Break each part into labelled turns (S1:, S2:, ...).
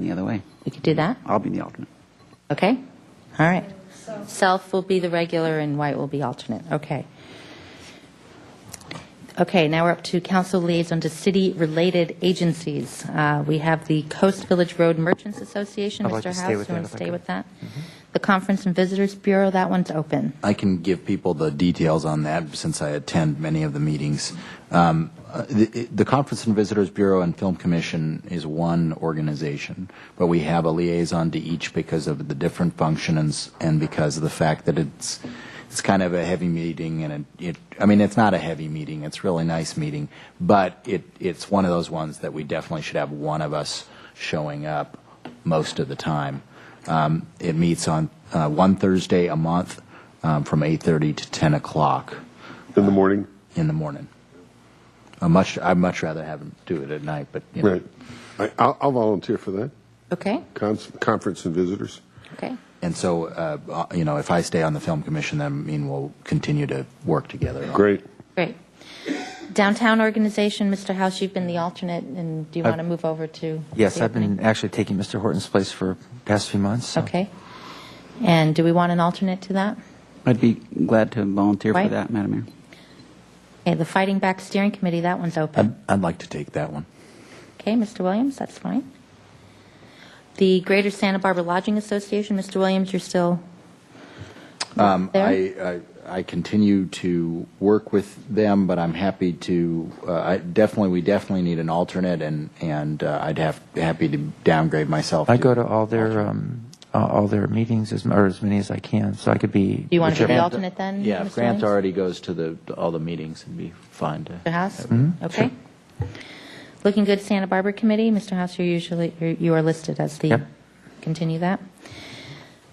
S1: the other way.
S2: We could do that?
S1: I'll be the alternate.
S2: Okay? All right. Self will be the regular and White will be alternate. Okay. Okay, now we're up to council liaison to city-related agencies. Uh, We have the Coast Village Road Merchants Association.
S3: I'd like
S2: Mr.
S3: to stay
S2: House, you
S3: with that
S2: want
S3: if
S2: to
S3: I
S2: stay
S3: could. Mm-hmm.
S2: with that? The Conference and Visitors Bureau, that one's open.
S4: I can give people the details on that since I attend many of the meetings. Um, uh, the, the Conference and Visitors Bureau and Film Commission is one organization, but we have a liaison to each because of the different functions and because of the fact that it's it's kind of a heavy meeting and it, it I mean it's not a heavy meeting, it's a really nice meeting, but it it's one of those ones that we definitely should have one of us showing up most of the time. Um, it meets on uh, one Thursday a month um, from 8:30 to 10 o'clock
S5: in the morning.
S4: in the morning. I much I'd much rather have them do it at night, but you know.
S5: Right. I, I'll, I'll volunteer for that.
S2: Okay?
S5: Con- conference and visitors.
S2: Okay.
S4: And so, uh, uh, you know, if I stay on the film commission, then I mean we'll continue to work together. on-
S5: Great.
S2: Great. Downtown Organization, Mr. House, you've been the alternate, and do you
S3: I've-
S2: want to move over to?
S3: Yes,
S2: the
S3: I've been actually taking Mr. Horton's place for past few months. so-
S2: Okay. And do we want an alternate to that?
S1: I'd be glad to volunteer for
S2: Right.
S1: that, Madam Mayor.
S2: Okay, the Fighting Back Steering Committee, that one's
S4: I'd,
S2: open.
S4: I'd like to take that one.
S2: Okay, Mr. Williams, that's fine. The Greater Santa Barbara Lodging Association, Mr. Williams, you're still there?
S4: Um, I, I, I continue to work with them, but I'm happy to, uh, I definitely, we definitely need an alternate, and, and uh, I'd have, happy to downgrade myself.
S3: I go to all their um, uh, all their meetings as or as many as I can, so I could be.
S2: Do you want to be the
S4: Grant-
S2: alternate then?
S4: Yeah, if
S2: Mr.
S4: Grant
S2: Williams?
S4: already goes to the, to all the meetings, it'd be fine to.
S2: Mr. House?
S4: Mm-hmm.
S2: Okay. Looking Good Santa Barbara Committee, Mr. House, you're usually, you're- you are listed as the,
S3: Yep.
S2: continue that.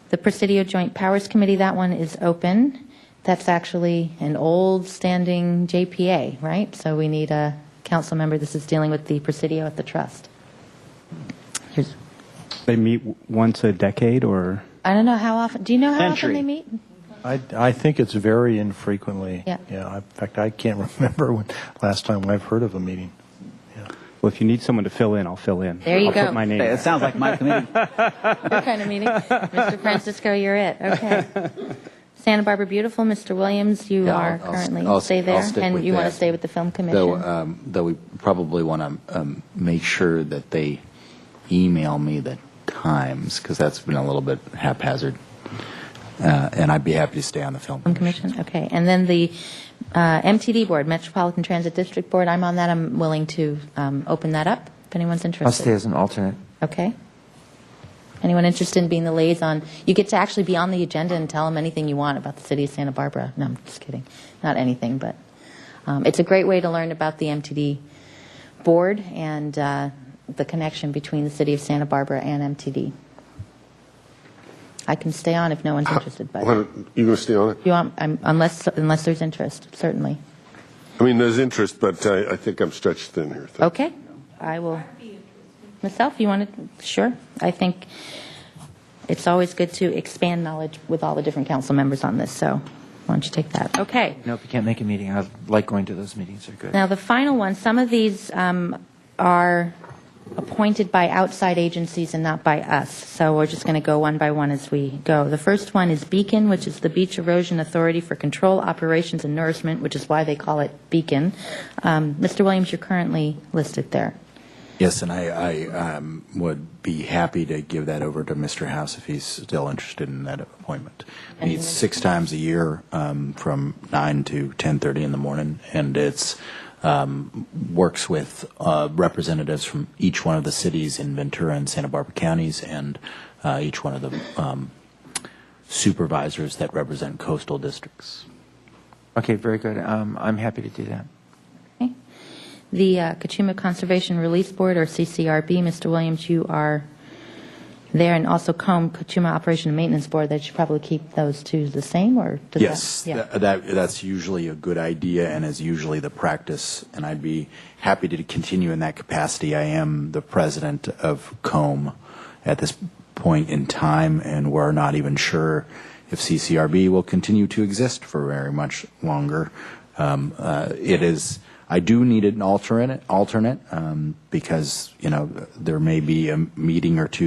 S2: The Presidio Joint Powers Committee, that one is open. That's actually an old standing JPA, right? So we need a council member. This is dealing with the Presidio at the Trust. Here's-
S6: They meet w- once a decade, or
S2: I don't know how often, do you know how often
S6: Century.
S2: they meet?
S7: I, I think it's very infrequently.
S2: Yeah.
S7: Yeah, in fact, I can't remember when, last time I've heard of a meeting.
S6: well, if you need someone to fill in, I'll fill in.
S2: There you
S6: I'll
S2: go.
S6: Put my name.
S1: It sounds like my committee.
S2: Your kind of meeting. Mr. Francisco, you're it, okay. Santa Barbara Beautiful, Mr. Williams, you
S4: Yeah,
S2: are
S4: I'll- I'll-
S2: currently,
S4: I'll-
S2: stay
S4: I'll
S2: there.
S4: stick
S2: And
S4: with
S2: you want to
S4: that.
S2: stay with the Film
S4: Though,
S2: Commission.
S4: um, though we probably want to um, make sure that they email me the times because that's been a little bit haphazard. Uh, and I'd be happy to stay on the film.
S2: Film Commission, okay. And then the uh, MTD Board, Metropolitan Transit District Board, I'm on that, I'm willing to um, open that up if anyone's interested.
S3: I'll stay as an alternate.
S2: Okay. Anyone interested in being the liaison? You get to actually be on the agenda and tell them anything you want about the city of Santa Barbara. No, I'm just kidding. Not anything, but um, it's a great way to learn about the MTD board and uh, the connection between the city of Santa Barbara and MTD. I can stay on if no one's interested, but
S5: Why don't- You going to stay on it?
S2: you want, I'm- unless, unless there's interest, certainly.
S5: I mean, there's interest, but I, I think I'm stretched thin here. Thank-
S2: Okay, I will. Myself, you want to, sure. I think it's always good to expand knowledge with all the different council members on this, so why don't you take that? Okay.
S3: You know, if you can't make a meeting, I like going to those meetings. They're good.
S2: Now, the final one, some of these um, are appointed by outside agencies and not by us, so we're just going to go one by one as we go. The first one is Beacon, which is the Beach Erosion Authority for Control, Operations, and Nourishment, which is why they call it Beacon. Um, Mr. Williams, you're currently listed there.
S4: Yes, and I, I um, would be happy to give that over to Mr. House if he's still interested in that appointment. Meets six times a year, um, from nine to ten thirty in the morning, and it's um, works with uh, representatives from each one of the cities in Ventura and Santa Barbara counties, and uh, each one of the um, supervisors that represent coastal districts.
S3: Okay, very good. Um, I'm happy to do that.
S2: Okay. The uh, Kachuma Conservation Release Board, or CCRB, Mr. Williams, you are there, and also COMB, Kachuma Operation and Maintenance Board, they should probably keep those two the same, or? does that-
S4: Yes,
S2: Yeah.
S4: tha- that, that's usually a good idea and is usually the practice, and I'd be happy to continue in that capacity. I am the president of COME at this point in time, and we're not even sure if CCRB will continue to exist for very much longer. Um, uh, It is, I do need an alternate, alternate, um, because, you know, there may be a meeting or two